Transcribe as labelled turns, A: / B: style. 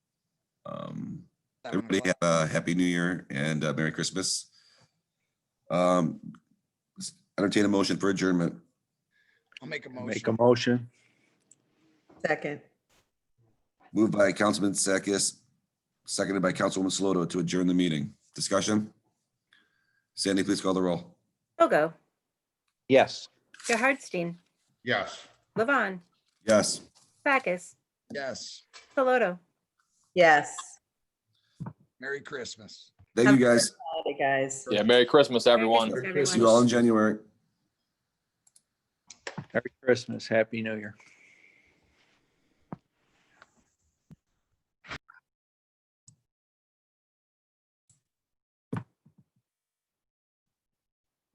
A: Um, Everybody have a happy new year and uh, Merry Christmas. Um, entertain a motion for adjournment.
B: I'll make a
C: Make
B: motion.
C: a motion.
D: Second.
A: Moved by Councilman Sakis, seconded by Councilwoman Saloto to adjourn the meeting. Discussion? Sandy, please call the roll.
E: Bogo,
C: Yes.
E: Gerhardstein,
B: Yes.
E: Levon,
A: Yes.
E: Backus,
B: Yes.
E: Saloto.
D: Yes.
B: Merry Christmas.
A: Thank you, guys.
D: Howdy, guys.
F: Yeah, Merry Christmas, everyone.
E: Merry
A: See
E: Christmas,
A: you all in
E: everyone.
A: January.
C: Merry Christmas. Happy New Year.